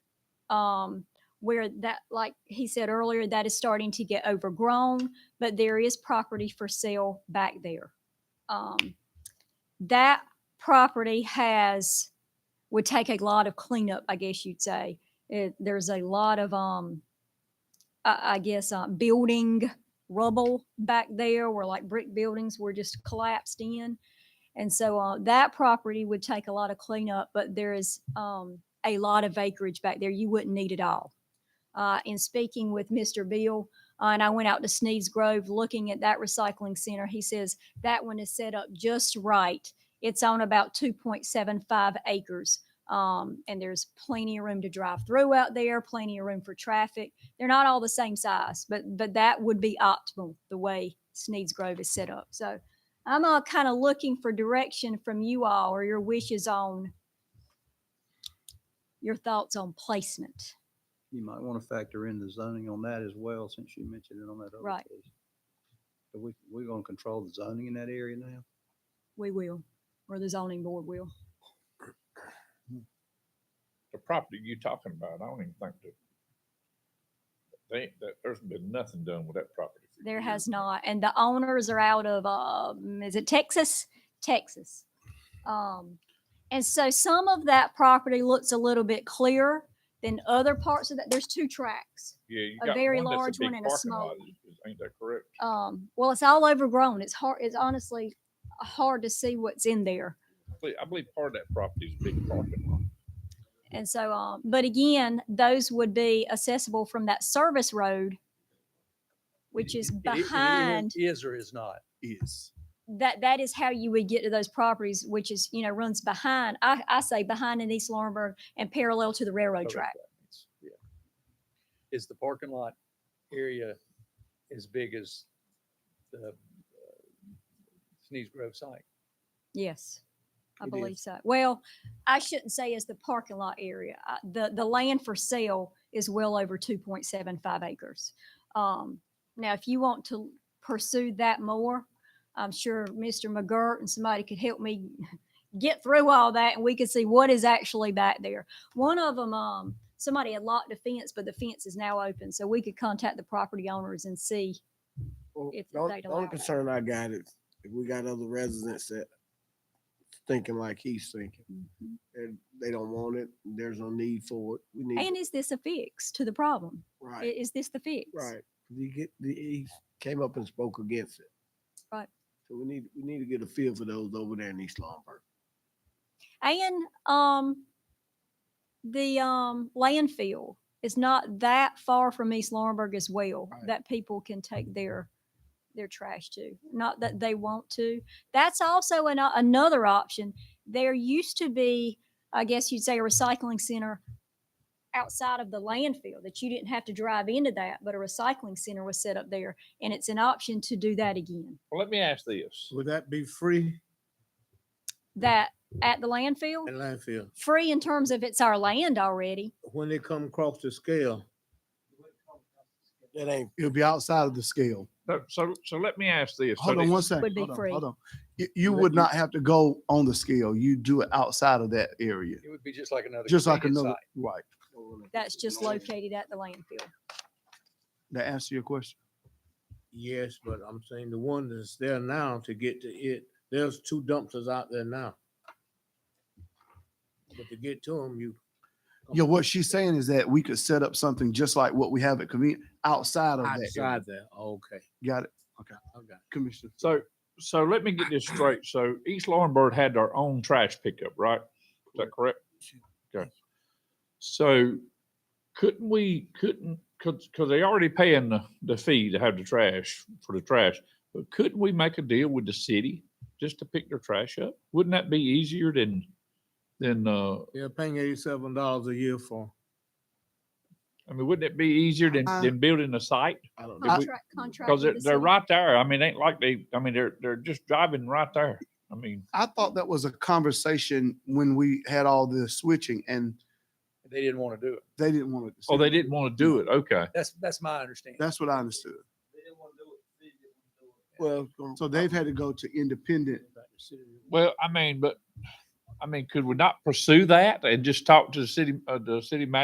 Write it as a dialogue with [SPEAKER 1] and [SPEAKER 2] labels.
[SPEAKER 1] um, where that, like he said earlier, that is starting to get overgrown, but there is property for sale back there. Um, that property has, would take a lot of cleanup, I guess you'd say. It, there's a lot of, um, I, I guess, uh, building rubble back there where like brick buildings were just collapsed in. And so uh, that property would take a lot of cleanup, but there is um, a lot of acreage back there. You wouldn't need it all. Uh, in speaking with Mr. Beal, uh, and I went out to Sneed's Grove looking at that recycling center, he says that one is set up just right. It's on about 2.75 acres. Um, and there's plenty of room to drive through out there, plenty of room for traffic. They're not all the same size, but but that would be optimal the way Sneed's Grove is set up. So I'm uh, kind of looking for direction from you all or your wishes on your thoughts on placement.
[SPEAKER 2] You might want to factor in the zoning on that as well, since you mentioned it on that other
[SPEAKER 1] Right.
[SPEAKER 2] case. But we, we're gonna control the zoning in that area now?
[SPEAKER 1] We will, or the zoning board will.
[SPEAKER 3] the property you talking about, I don't even think that. They, that, there's been nothing done with that property. for
[SPEAKER 1] There
[SPEAKER 3] years.
[SPEAKER 1] has not, and the owners are out of, um, is it Texas? Texas. Um, and so some of that property looks a little bit clearer than other parts of that. There's two tracks.
[SPEAKER 3] Yeah, you
[SPEAKER 1] a
[SPEAKER 3] got
[SPEAKER 1] very
[SPEAKER 3] one
[SPEAKER 1] large
[SPEAKER 3] that's a
[SPEAKER 1] one
[SPEAKER 3] big
[SPEAKER 1] and a
[SPEAKER 3] parking lot,
[SPEAKER 1] small
[SPEAKER 3] is- ain't that correct?
[SPEAKER 1] Um, well, it's all overgrown. It's hard, it's honestly hard to see what's in there.
[SPEAKER 3] I believe- I believe part of that property is a big parking lot.
[SPEAKER 1] And so, um, but again, those would be accessible from that service road, which is behind,
[SPEAKER 2] Is or is not?
[SPEAKER 4] is.
[SPEAKER 1] that, that is how you would get to those properties, which is, you know, runs behind, I, I say behind in East Lawrenceburg and parallel to the railroad track.
[SPEAKER 4] It's- yeah. Is the parking lot area as big as the uh, Sneeds Grove site?
[SPEAKER 1] Yes, I
[SPEAKER 4] It is.
[SPEAKER 1] believe so. Well, I shouldn't say as the parking lot area. I- The, the land for sale is well over two point seven five acres. Um, now, if you want to pursue that more, I'm sure Mr. McGirt and somebody could help me get through all that and we could see what is actually back there. One of them, um, somebody had locked a fence, but the fence is now open, so we could contact the property owners and see.
[SPEAKER 5] Well,
[SPEAKER 1] if
[SPEAKER 5] the only-
[SPEAKER 1] they'd
[SPEAKER 5] the
[SPEAKER 1] allow
[SPEAKER 5] only
[SPEAKER 1] that.
[SPEAKER 5] concern I got is if we got other residents that thinking like he's thinking, and they don't want it, there's no need for it. We need,
[SPEAKER 1] Mm-hmm. And is this a fix to the problem? I-
[SPEAKER 5] right,
[SPEAKER 1] Is this the fix?
[SPEAKER 5] right. He get, he- he came up and spoke against it.
[SPEAKER 1] Right.
[SPEAKER 5] So we need, we need to get a feel for those over there in East Lombard.
[SPEAKER 1] And um, the um, landfill is not that far from East Laurinburg as well
[SPEAKER 5] Right.
[SPEAKER 1] that people can take their their trash to. Not that they want to. That's also an, o- another option. There used to be, I guess you'd say, a recycling center outside of the landfill that you didn't have to drive into that, but a recycling center was set up there, and it's an option to do that again.
[SPEAKER 3] Well, let me ask this,
[SPEAKER 6] Would that be free
[SPEAKER 1] That at the landfill,
[SPEAKER 6] at landfill
[SPEAKER 1] free in terms of it's our land already.
[SPEAKER 6] when they come across the scale?
[SPEAKER 5] That ain't,
[SPEAKER 6] It'll be outside of the scale.
[SPEAKER 3] so, so, so let me ask this. so
[SPEAKER 6] Hold on
[SPEAKER 3] the-
[SPEAKER 6] one second.
[SPEAKER 1] Would be
[SPEAKER 6] hold on,
[SPEAKER 1] free.
[SPEAKER 6] Hold on. You, you
[SPEAKER 5] Let
[SPEAKER 6] would
[SPEAKER 5] me-
[SPEAKER 6] not have to go on the scale. You do it outside of that area,
[SPEAKER 4] It would be just like another.
[SPEAKER 6] just like
[SPEAKER 4] convenience
[SPEAKER 6] another,
[SPEAKER 4] site.
[SPEAKER 6] right.
[SPEAKER 1] That's just located at the landfill.
[SPEAKER 6] That answer your question?
[SPEAKER 7] Yes, but I'm saying the one that's there now to get to it, there's two dumpsters out there now. But to get to them, you.
[SPEAKER 6] Yeah, what she's saying is that we could set up something just like what we have at convenience outside of that. area.
[SPEAKER 7] Outside there, okay,
[SPEAKER 6] Got it,
[SPEAKER 7] okay.
[SPEAKER 6] Commissioner?
[SPEAKER 3] So, so let me get this straight. So East Laurinburg had their own trash pickup, right? Is that correct? Okay. So couldn't we, couldn't, cause, cause they already paying the, the fee to have the trash, for the trash. But couldn't we make a deal with the city just to pick their trash up? Wouldn't that be easier than, than, uh,
[SPEAKER 7] They're paying eighty-seven dollars a year for.
[SPEAKER 3] I mean, wouldn't it be easier than,
[SPEAKER 6] Uh,
[SPEAKER 3] than building a site?
[SPEAKER 5] I don't know.
[SPEAKER 1] Contract, contract. with
[SPEAKER 3] Cause they're,
[SPEAKER 1] the
[SPEAKER 3] they're
[SPEAKER 1] city.
[SPEAKER 3] right there. I mean, ain't like they, I mean, they're, they're just driving right there. I mean.
[SPEAKER 6] I thought that was a conversation when we had all the switching and
[SPEAKER 4] They didn't want to do it.
[SPEAKER 6] they didn't want to.
[SPEAKER 3] Oh, they didn't want to do it. Okay.
[SPEAKER 4] That's, that's my understanding.
[SPEAKER 6] That's what I understood.
[SPEAKER 5] Well,
[SPEAKER 6] So they've had to go to independent
[SPEAKER 3] Well, I mean, but, I mean, could we not pursue that and just talk to the city, uh, the city manager